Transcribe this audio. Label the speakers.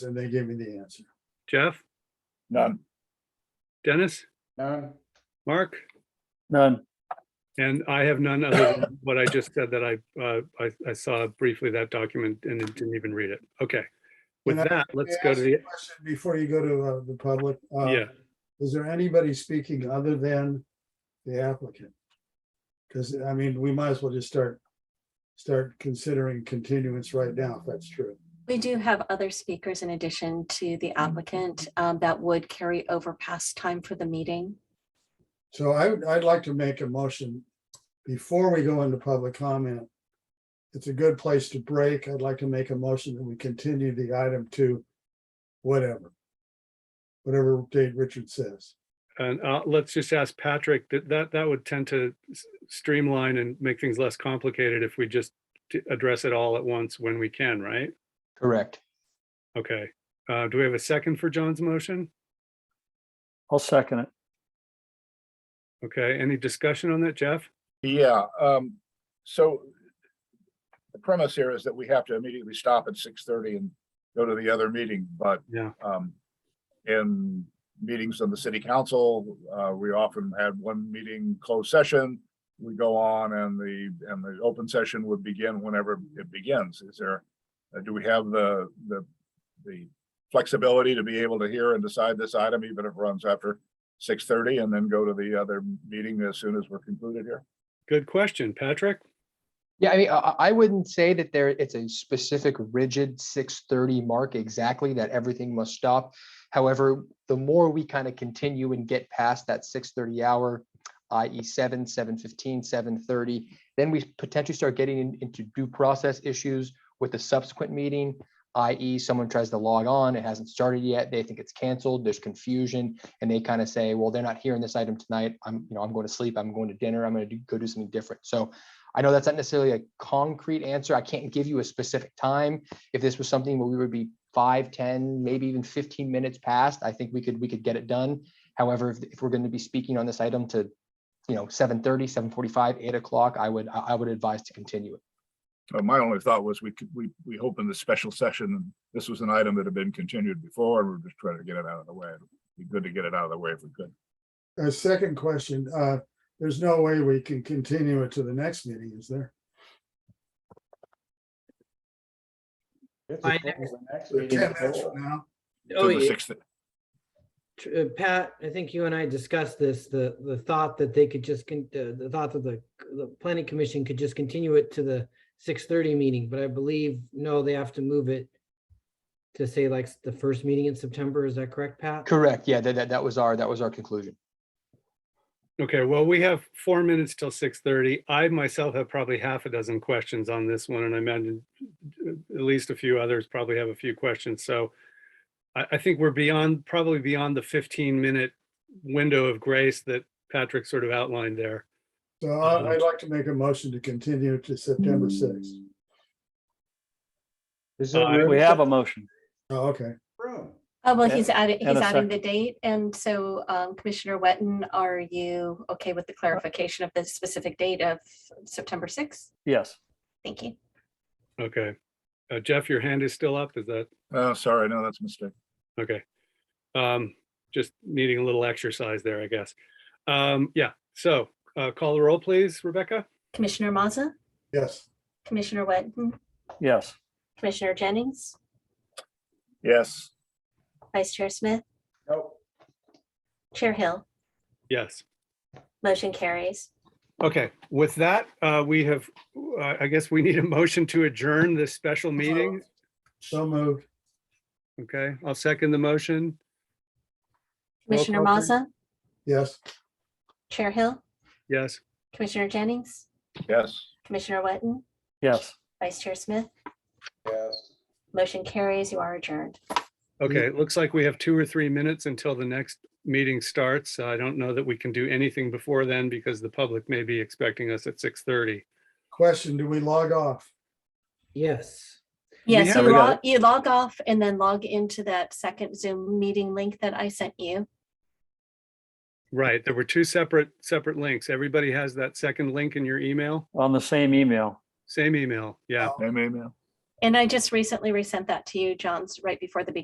Speaker 1: and they gave me the answer.
Speaker 2: Jeff,
Speaker 3: None.
Speaker 2: Dennis,
Speaker 1: None?
Speaker 2: Mark?
Speaker 3: None.
Speaker 2: And I have none other than what I just said that I, uh, I, I saw briefly that document and didn't even read it. Okay. With
Speaker 1: Can I-
Speaker 2: that, let's go to the,
Speaker 1: Question Before you go to uh, the public. uh,
Speaker 2: yeah,
Speaker 1: Is there anybody speaking other than the applicant? Because, I mean, we might as well just start, start considering continuance right now, if that's true.
Speaker 4: We do have other speakers in addition to
Speaker 3: Mm-hmm.
Speaker 4: the applicant um, that would carry over past time for the meeting.
Speaker 1: So I, would- I'd like to make a motion before we go into public comment. It's a good place to break. I'd like to make a motion that we continue the item to whatever. Whatever date Richard says.
Speaker 2: and, uh, let's just ask Patrick, that, that, that would tend to s- streamline and make things less complicated if we just t- address it all at once when we can, right?
Speaker 3: Correct.
Speaker 2: Okay. Uh, do we have a second for John's motion?
Speaker 3: I'll second it.
Speaker 2: Okay, any discussion on that, Jeff?
Speaker 5: Yeah, um, so the premise here is that we have to immediately stop at six thirty and go to the other meeting, but
Speaker 2: Yeah.
Speaker 5: um, in meetings of the city council, uh, we often had one meeting closed session. We go on and the, and the open session would begin whenever it begins. Is there, uh, do we have the, the, the flexibility to be able to hear and decide this item, even if it runs after six thirty and then go to the other meeting as soon as we're concluded here?
Speaker 2: Good question, Patrick.
Speaker 6: Yeah, I mean, I, I- I wouldn't say that there, it's a specific rigid six thirty mark exactly that everything must stop. However, the more we kind of continue and get past that six thirty hour, i.e. seven, seven fifteen, seven thirty, then we potentially start getting in- into due process issues with the subsequent meeting, i.e. someone tries to log on, it hasn't started yet, they think it's canceled, there's confusion, and they kind of say, well, they're not hearing this item tonight. I'm, you know, I'm going to sleep, I'm going to dinner, I'm going to go do something different. So I know that's not necessarily a concrete answer. I can't give you a specific time. If this was something where we would be five, 10, maybe even 15 minutes past, I think we could, we could get it done. However, if, if we're going to be speaking on this item to, you know, 7:30, 7:45, 8 o'clock, I would, I I would advise to continue it.
Speaker 5: Uh, My only thought was we could, we, we opened the special session. and This was an item that had been continued before and we're just trying to get it out of the way. It'd Be good to get it out of the way if we could.
Speaker 1: A second question, uh, there's no way we can continue it to the next meeting, is there?
Speaker 7: My
Speaker 1: Ten minutes from now,
Speaker 7: Oh,
Speaker 5: To the
Speaker 7: yeah,
Speaker 5: sixth-
Speaker 7: tr- uh, Pat, I think you and I discussed this, the, the thought that they could just, con- uh, the thought that the, the planning commission could just continue it to the six thirty meeting, but I believe, no, they have to move it to say like s- the first meeting in September, is that correct, Pat?
Speaker 6: Correct. Yeah, that, that, that was our, that was our conclusion.
Speaker 2: Okay, well, we have four minutes till six thirty. I myself have probably half a dozen questions on this one, and I imagine uh, at least a few others probably have a few questions, so I, I think we're beyond, probably beyond the fifteen minute window of grace that Patrick sort of outlined there.
Speaker 1: so I- I'd like to make a motion to continue to September sixth.
Speaker 2: Uh,
Speaker 3: We have a motion.
Speaker 1: Oh, okay,
Speaker 4: Uh, Well,
Speaker 3: Yeah,
Speaker 4: he's adding, he's
Speaker 3: and a
Speaker 4: adding the
Speaker 3: second.
Speaker 4: date. And so um, Commissioner Wetton, are you okay
Speaker 3: Uh,
Speaker 4: with the clarification of the specific date of September 6th?
Speaker 3: Yes.
Speaker 4: Thank you.
Speaker 2: Okay. Uh, Jeff, your hand is still up, is that,
Speaker 5: Oh, sorry, no, that's a mistake.
Speaker 2: okay. Um, just needing a little exercise there, I guess. Um, yeah, so, uh, call the roll, please, Rebecca?
Speaker 4: Commissioner Maza,
Speaker 1: yes.
Speaker 4: Commissioner Wetton,
Speaker 3: Yes.
Speaker 4: Commissioner Jennings,
Speaker 5: Yes,
Speaker 4: Vice Chair Smith,
Speaker 3: No.
Speaker 4: Chair Hill,
Speaker 2: Yes.
Speaker 4: motion carries.
Speaker 2: Okay, with that, uh, we have, uh, I guess we need a motion to adjourn this special meeting.
Speaker 1: So moved,
Speaker 2: Okay, I'll second the motion. Roll
Speaker 4: Commissioner
Speaker 2: call, please.
Speaker 4: Maza,
Speaker 1: yes.
Speaker 4: Chair Hill,
Speaker 2: Yes,
Speaker 4: Commissioner Jennings,
Speaker 5: yes.
Speaker 4: Commissioner Wetton,
Speaker 3: Yes.
Speaker 4: Vice Chair Smith. Yes. Motion carries. You are adjourned.
Speaker 2: okay, it looks like we have two or three minutes until the next meeting starts. I don't know that we can do anything before then because the public may be expecting us at 6:30.
Speaker 1: Question, do we log off?
Speaker 7: Yes.
Speaker 4: Yes,
Speaker 2: have
Speaker 4: you
Speaker 2: a-
Speaker 4: log, you log off and then log into that second Zoom meeting link that I sent you.
Speaker 2: Right, there were two separate, separate links. Everybody has that second link in your email,
Speaker 3: On the same email.
Speaker 2: same email, yeah.
Speaker 5: Amen, amen.
Speaker 4: And I just recently resent that to you, John's, right before the beginning